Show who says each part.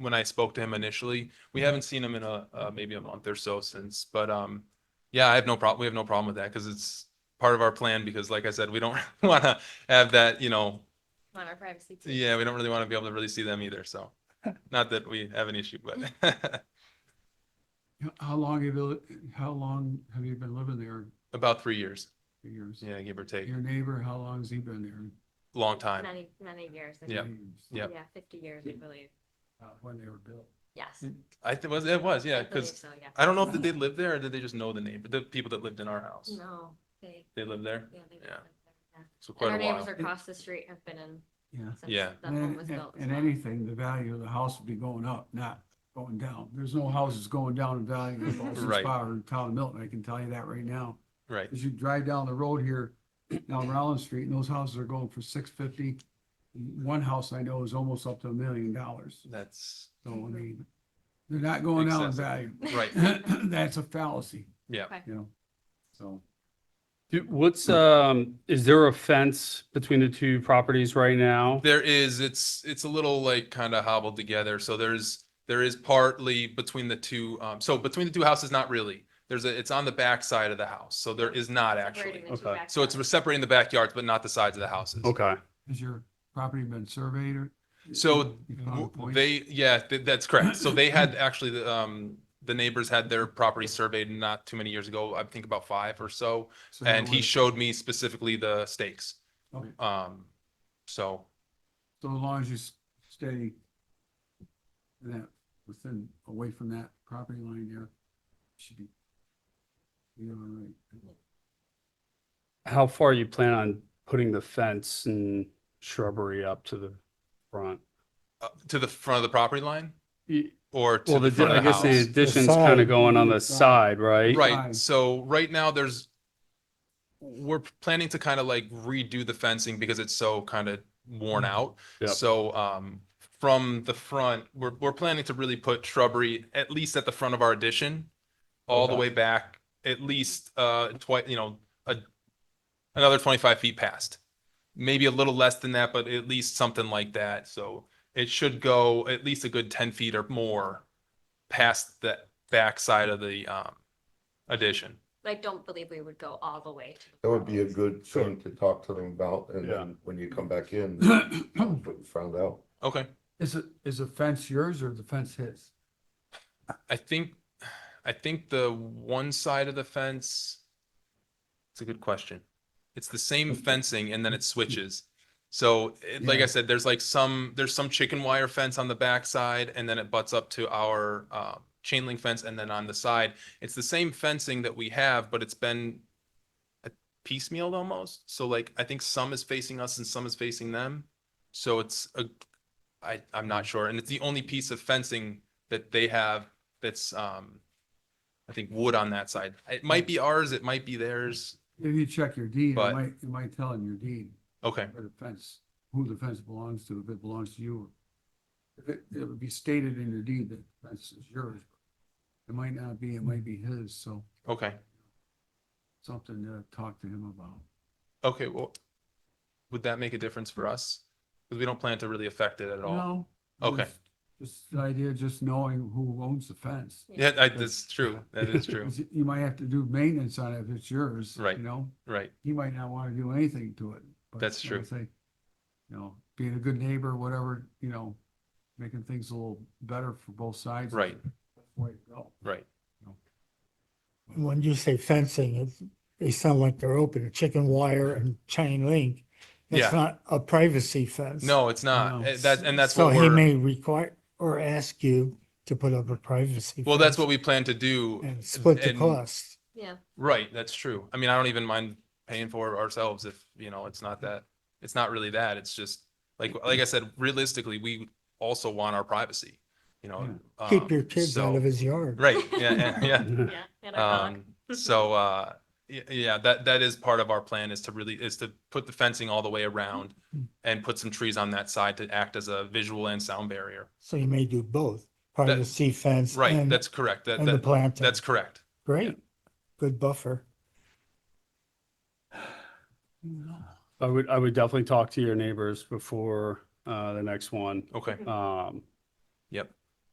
Speaker 1: when I spoke to him initially. We haven't seen him in a, uh, maybe a month or so since, but, um, yeah, I have no problem. We have no problem with that because it's part of our plan because like I said, we don't want to have that, you know,
Speaker 2: on our privacy. too.
Speaker 1: yeah, we don't really want to be able to really see them either. So not that we have an issue, but
Speaker 3: How- How long have you, li- how long have you been living there
Speaker 1: about three years.
Speaker 3: for years?
Speaker 1: Yeah, give or take.
Speaker 3: Your neighbor, how long has he been there?
Speaker 1: Long time.
Speaker 2: Many, many years. I
Speaker 1: Yeah.
Speaker 2: think.
Speaker 3: Years,
Speaker 1: Yeah.
Speaker 2: Yeah, fifty years, I believe.
Speaker 3: uh, When they were built.
Speaker 2: Yes.
Speaker 3: Mm-hmm.
Speaker 1: I think was, it was, yeah,
Speaker 2: I believe
Speaker 1: because
Speaker 2: so, yeah.
Speaker 1: I don't know if did they lived there or did they just know the neighbor, the people that lived in our house.
Speaker 2: No, they,
Speaker 1: They lived there.
Speaker 2: yeah, they.
Speaker 1: Yeah.
Speaker 2: yeah.
Speaker 1: So
Speaker 2: And
Speaker 1: quite
Speaker 2: our
Speaker 1: a
Speaker 2: neighbors
Speaker 1: while.
Speaker 2: are across the street have been in
Speaker 3: Yeah.
Speaker 2: since
Speaker 1: Yeah.
Speaker 2: the home was
Speaker 3: And-
Speaker 2: built. as
Speaker 3: And
Speaker 2: well.
Speaker 3: anything, the value of the house would be going up, not going down. There's no houses going down in value in Folsom
Speaker 1: Right.
Speaker 3: Spa or in town of Milton. I can tell you that right now.
Speaker 1: Right.
Speaker 3: As you drive down the road here, down Rollins Street, and those houses are going for six fifty. One house I know is almost up to a million dollars.
Speaker 1: That's
Speaker 3: So, I mean, they're not going down in
Speaker 1: Excessive.
Speaker 3: value.
Speaker 1: right.
Speaker 3: That's a fallacy,
Speaker 1: Yeah.
Speaker 2: Okay.
Speaker 3: you know, so.
Speaker 4: Do- What's,
Speaker 1: Hmm.
Speaker 4: um, is there a fence between the two properties right now?
Speaker 1: There is, it's, it's a little like kind of hobbled together. So there's, there is partly between the two, um, so between the two houses, not really. There's a, it's on the back side of the house. So there is not actually.
Speaker 2: Separating the two
Speaker 4: Okay.
Speaker 2: back
Speaker 1: So it's
Speaker 2: doors.
Speaker 1: separating the backyards, but not the sides of the houses.
Speaker 4: Okay,
Speaker 3: Has your property been surveyed or?
Speaker 1: So
Speaker 3: You found a
Speaker 1: W-
Speaker 3: point?
Speaker 1: They, yeah, th- that's correct. So they had actually, the, um, the neighbors had their property surveyed not too many years ago, I think about five or so.
Speaker 3: So
Speaker 1: And
Speaker 3: that
Speaker 1: he
Speaker 3: was-
Speaker 1: showed me specifically the stakes.
Speaker 3: Okay.
Speaker 1: Um, so,
Speaker 3: So as long as you s- stay that, within, away from that property line there, should be. You're all right.
Speaker 4: how far you plan on putting the fence and shrubbery up to the front?
Speaker 1: uh, to the front of the property line
Speaker 4: Y-
Speaker 1: or to
Speaker 4: Well,
Speaker 1: the
Speaker 4: the,
Speaker 1: front
Speaker 4: I
Speaker 1: of the
Speaker 4: guess the
Speaker 1: house?
Speaker 4: addition's
Speaker 3: side.
Speaker 4: kind of going on the
Speaker 3: Side.
Speaker 4: side, right?
Speaker 1: Right,
Speaker 3: Fine.
Speaker 1: so right now there's, we're planning to kind of like redo the fencing because it's so kind of worn out.
Speaker 4: Mm-hmm. Yep.
Speaker 1: So, um, from the front, we're, we're planning to really put shrubbery at least at the front of our addition, all the
Speaker 4: Okay.
Speaker 1: way back, at least, uh, twice, you know, a, another twenty-five feet past. Maybe a little less than that, but at least something like that. So it should go at least a good ten feet or more past the backside of the, um, addition.
Speaker 2: I don't believe we would go all the way. to the
Speaker 5: That would be a
Speaker 2: front.
Speaker 5: good
Speaker 4: Sure.
Speaker 5: thing to talk to them about, and
Speaker 4: Yeah.
Speaker 5: then when you come back in, what you found out.
Speaker 1: Okay.
Speaker 3: Is it, is the fence yours or the fence his?
Speaker 1: I think, I think the one side of the fence. It's a good question. It's the same fencing and then it switches. So it, like I
Speaker 3: Yeah.
Speaker 1: said, there's like some, there's some chicken wire fence on the backside and then it butts up to our, uh, chain link fence and then on the side. It's the same fencing that we have, but it's been uh, piecemealed almost. So like, I think some is facing us and some is facing them. So it's a, I, I'm not sure. And it's the only piece of fencing that they have that's, um, I think wood on that side. It might be ours, it might be theirs.
Speaker 3: If you check your deed, it
Speaker 1: But-
Speaker 3: might, it might tell in your deed
Speaker 1: Okay,
Speaker 3: where the fence, who the fence belongs to, if it belongs to you. If it, it would be stated in your deed that the fence is yours. It might not be, it might be his, so
Speaker 1: okay,
Speaker 3: something to talk to him about.
Speaker 1: okay, well, would that make a difference for us? Because we don't plan to really affect it at all.
Speaker 3: No.
Speaker 1: Okay.
Speaker 3: just- Just the idea, of just knowing who owns the fence.
Speaker 1: Yeah, I, that's true, that is true,
Speaker 3: You might have to do maintenance on it if it's yours.
Speaker 1: Right.
Speaker 3: You know,
Speaker 1: right,
Speaker 3: he might not want to do anything to it. but
Speaker 1: That's
Speaker 3: I would say, You know, being a good neighbor, whatever, you know, making things a little better for both sides.
Speaker 1: Right.
Speaker 3: Way to go.
Speaker 1: right.
Speaker 6: when you say fencing, it's, they sound like they're open, chicken wire and chain link.
Speaker 1: Yeah.
Speaker 6: It's not a privacy fence.
Speaker 1: No, it's not,
Speaker 3: No.
Speaker 1: Eh, that, and that's
Speaker 6: So
Speaker 1: what
Speaker 6: he
Speaker 1: we're,
Speaker 6: may require or ask you to put up a privacy.
Speaker 1: well, that's
Speaker 6: fence
Speaker 1: what we plan to do,
Speaker 6: And split the
Speaker 1: and-
Speaker 6: cost.
Speaker 2: Yeah,
Speaker 1: right, that's true. I mean, I don't even mind paying for it ourselves if, you know, it's not that, it's not really that, it's just, like, like I said, realistically, we also want our privacy, you know.
Speaker 6: Keep
Speaker 1: um,
Speaker 6: your kids
Speaker 1: so-
Speaker 6: out of his yard.
Speaker 1: Right, yeah, yeah, yeah.
Speaker 2: yeah. and our dog.
Speaker 1: Um, so, uh, y- yeah, that, that is part of our plan is to really, is to put the fencing all the way around and put some trees on that side to act as a visual and sound barrier.
Speaker 6: So you may do both, privacy fence.
Speaker 1: Right,
Speaker 6: and-
Speaker 1: that's correct. That,
Speaker 6: And the
Speaker 1: that,
Speaker 6: planting.
Speaker 1: that's correct.
Speaker 6: Great. Good buffer.
Speaker 4: I would, I would definitely talk to your neighbors before, uh, the next one.
Speaker 1: Okay,
Speaker 4: Um,
Speaker 1: yep.